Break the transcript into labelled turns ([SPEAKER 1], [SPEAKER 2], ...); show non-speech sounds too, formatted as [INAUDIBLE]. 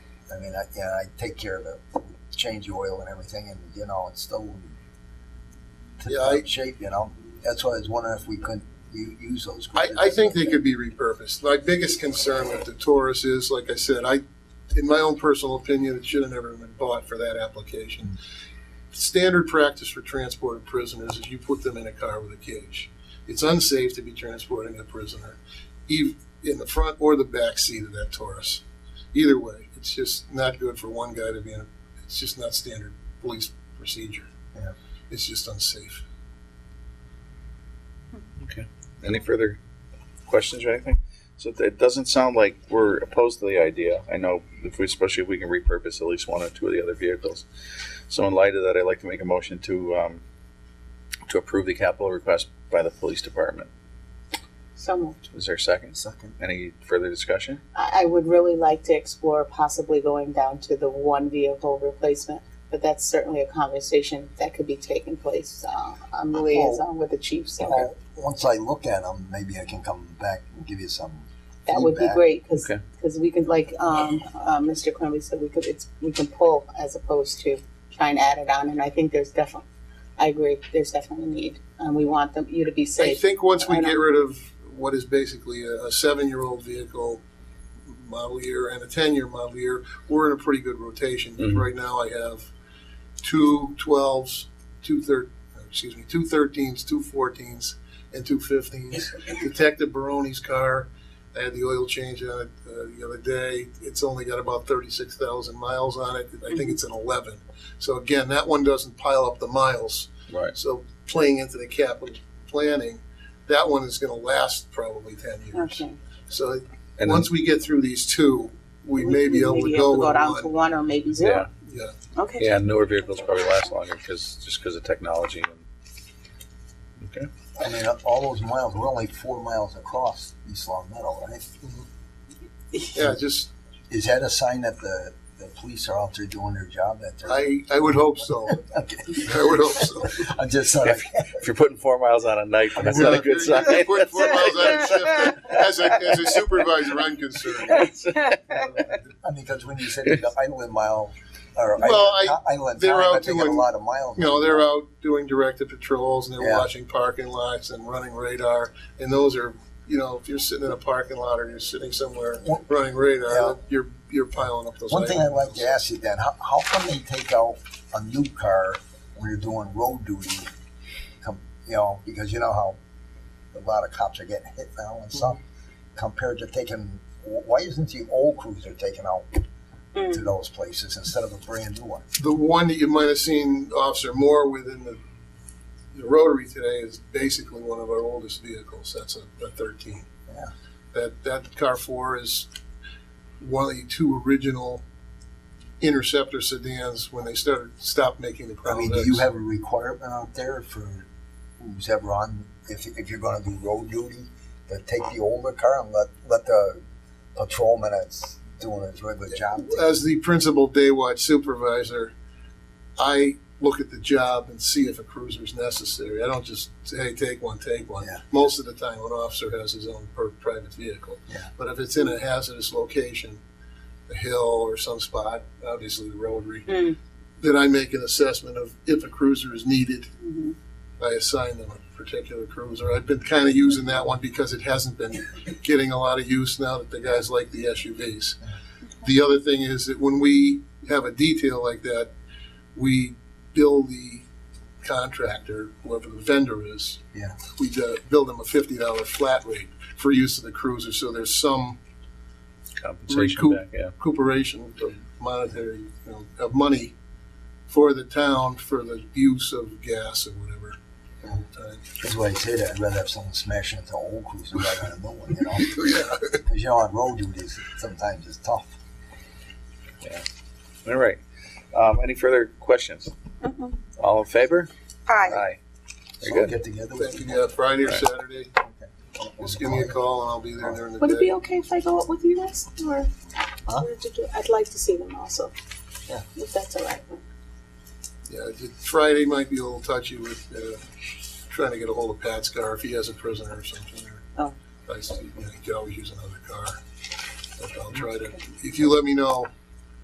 [SPEAKER 1] I mean, I, yeah, I take care of it, change the oil and everything, and you know, it's still in
[SPEAKER 2] Yeah, I-
[SPEAKER 1] great shape. You know, that's why I was wondering if we couldn't u- use those.
[SPEAKER 2] I, I think they could be repurposed. My biggest concern with the Taurus is, like I said, I, in my own personal opinion, it should have never been bought for that application. Standard practice for transporting prisoners is you put them in a car with a cage. It's unsafe to be transporting a prisoner, ev in the front or the back seat of that Taurus. Either way, it's just not good for one guy to be in. A, it's just not standard police procedure.
[SPEAKER 1] Yeah.
[SPEAKER 2] It's just unsafe.
[SPEAKER 3] Any further questions or anything? So it doesn't sound like we're opposed to the idea. I know, if we, especially if we can repurpose at least one or two of the other vehicles. So in light of that, I'd like to make a motion to, um, to approve the capital request by the police department.
[SPEAKER 4] So moved.
[SPEAKER 3] Is there a second?
[SPEAKER 1] Second,
[SPEAKER 3] Any further discussion?
[SPEAKER 4] I, I would really like to explore possibly going down to the one vehicle replacement, but that's certainly a conversation that could be taking place, uh, on the liaison with the chief, so
[SPEAKER 1] Well, once I look at them, maybe I can come back and give you some.
[SPEAKER 4] that would be
[SPEAKER 1] feedback.
[SPEAKER 4] great, cause,
[SPEAKER 3] Okay.
[SPEAKER 4] 'cause we could, like, um, uh, Mr. Quimby said, we could, it's, we can pull as opposed to try and add it on, and I think there's definitely, I agree, there's definitely a need, and we want them, you to be
[SPEAKER 2] I
[SPEAKER 4] safe.
[SPEAKER 2] think once we
[SPEAKER 4] I
[SPEAKER 2] get
[SPEAKER 4] don't-
[SPEAKER 2] rid of what is basically a, a seven-year-old vehicle model year and a ten-year model year, we're in a pretty good rotation. Because
[SPEAKER 3] Mhm.
[SPEAKER 2] Right now, I have two twelves, two thir- excuse me, two thirteens, two fourteens, and two
[SPEAKER 4] [LAUGHS]
[SPEAKER 2] fifteens. Detective Baroni's car. I had the oil change on it uh, the other day. It's only got about thirty-six thousand miles on it. I
[SPEAKER 4] Mm-hmm.
[SPEAKER 2] think it's an eleven. So again, that one doesn't pile up the miles.
[SPEAKER 3] Right.
[SPEAKER 2] So playing into the capital planning, that one is gonna last probably ten years.
[SPEAKER 4] Okay.
[SPEAKER 2] So
[SPEAKER 3] And then,
[SPEAKER 2] once we get through these two, we may be able to
[SPEAKER 4] maybe
[SPEAKER 2] go
[SPEAKER 4] Go down
[SPEAKER 2] with
[SPEAKER 4] to
[SPEAKER 2] one.
[SPEAKER 4] one or maybe
[SPEAKER 3] yeah,
[SPEAKER 4] zero,
[SPEAKER 2] Yeah,
[SPEAKER 4] okay.
[SPEAKER 3] yeah, newer vehicles probably last longer because, just because of technology. and- Okay.
[SPEAKER 1] I mean, all those miles. We're only four miles across East Long Meadow, right?
[SPEAKER 2] yeah, just,
[SPEAKER 1] Is that a sign that the the police are out there doing their job? That they're
[SPEAKER 2] I, I would hope [LAUGHS] so.
[SPEAKER 1] okay.
[SPEAKER 2] I would hope so.
[SPEAKER 1] [LAUGHS] I'm just sort of
[SPEAKER 3] If you're putting four miles on a night, that's not
[SPEAKER 2] [LAUGHS]
[SPEAKER 3] a good sign.
[SPEAKER 2] Put- put miles on a
[SPEAKER 3] That's-
[SPEAKER 2] shift. As a, as a supervisor, I'm concerned.
[SPEAKER 1] I mean, because when you said
[SPEAKER 2] [LAUGHS]
[SPEAKER 1] the island mile, or
[SPEAKER 2] Well,
[SPEAKER 1] island, not island
[SPEAKER 2] they're
[SPEAKER 1] time,
[SPEAKER 2] out
[SPEAKER 1] I think of a
[SPEAKER 2] doing-
[SPEAKER 1] lot of miles.
[SPEAKER 2] You know, they're out doing directed patrols and they're
[SPEAKER 1] Yeah.
[SPEAKER 2] watching parking lots and running radar. And those are, you know, if you're sitting in a parking lot or you're sitting somewhere
[SPEAKER 1] One-
[SPEAKER 2] running radar,
[SPEAKER 1] Yeah.
[SPEAKER 2] you're you're piling up those.
[SPEAKER 1] One thing I'd like to
[SPEAKER 2] items.
[SPEAKER 1] ask you, Dan, how, how come they take out a new car when you're doing road duty? Com- You know, because you know how a lot of cops are getting hit now and stuff, compared to taking, wh- why isn't the old cruiser taken out to
[SPEAKER 4] Mm.
[SPEAKER 1] those places instead of a brand new one?
[SPEAKER 2] The one that you might have seen Officer Moore within the, the Rotary today is basically one of our oldest vehicles. That's a, a 13.
[SPEAKER 1] Yeah.
[SPEAKER 2] That that car four is one of the two original interceptor sedans when they started stopped making the.
[SPEAKER 1] I
[SPEAKER 2] Crown
[SPEAKER 1] mean, do you
[SPEAKER 2] Vics.
[SPEAKER 1] have a requirement out there for who's ever on, if, if you're gonna do road duty, to take the older car and let, let the patrolman that's doing his regular job? take-
[SPEAKER 2] as the principal day watch supervisor, I look at the job and see if a cruiser is necessary. I don't just say, hey, take one, take one.
[SPEAKER 1] Yeah.
[SPEAKER 2] Most of the time, an officer has his own per- private vehicle.
[SPEAKER 1] Yeah.
[SPEAKER 2] But if it's in a hazardous location, a hill or some spot, obviously the rotary,
[SPEAKER 4] Mm.
[SPEAKER 2] then I make an assessment of if a cruiser is needed.
[SPEAKER 4] Mhm.
[SPEAKER 2] I assign them a particular cruiser. I've been kind of using that one because it hasn't been getting a lot of use now that the guys like the SUVs. The other thing is that when we have a detail like that, we bill the contractor, whoever the vendor is.
[SPEAKER 1] Yeah.
[SPEAKER 2] We uh, bill them a fifty dollar flat rate for use of the cruiser, so there's some
[SPEAKER 3] Compensation
[SPEAKER 2] Recoup.
[SPEAKER 3] back, yeah.
[SPEAKER 2] recuperation of monetary, you know, of money for the town for the use of gas or whatever.
[SPEAKER 1] Yeah.
[SPEAKER 2] Uh,
[SPEAKER 1] That's why I say that, I'd rather have someone smashing into an old cruiser rather than a new one, you know?
[SPEAKER 2] [LAUGHS] Yeah.
[SPEAKER 1] Cause you know, on road duties, sometimes it's tough.
[SPEAKER 3] All right. Um, any further questions?
[SPEAKER 4] Mhm.
[SPEAKER 3] All in favor?
[SPEAKER 5] Aye.
[SPEAKER 3] Aye.
[SPEAKER 1] So
[SPEAKER 3] Very good.
[SPEAKER 1] Get together with
[SPEAKER 2] Thank you,
[SPEAKER 1] people.
[SPEAKER 2] yeah, Friday or
[SPEAKER 3] Right.
[SPEAKER 2] Saturday, just give me a call and I'll be there during the
[SPEAKER 4] Would it be
[SPEAKER 2] day.
[SPEAKER 4] okay if I go up with you guys, or?
[SPEAKER 1] Huh?
[SPEAKER 4] or did you- I'd like to see them also.
[SPEAKER 1] Yeah.
[SPEAKER 4] If that's all right.
[SPEAKER 2] Yeah, ju- Friday might be a little touchy with, uh, trying to get a hold of Pat's car if he has a prisoner or something. or-
[SPEAKER 4] Oh.
[SPEAKER 2] I see, you know, you could always use another car. But I'll try to, if you let me know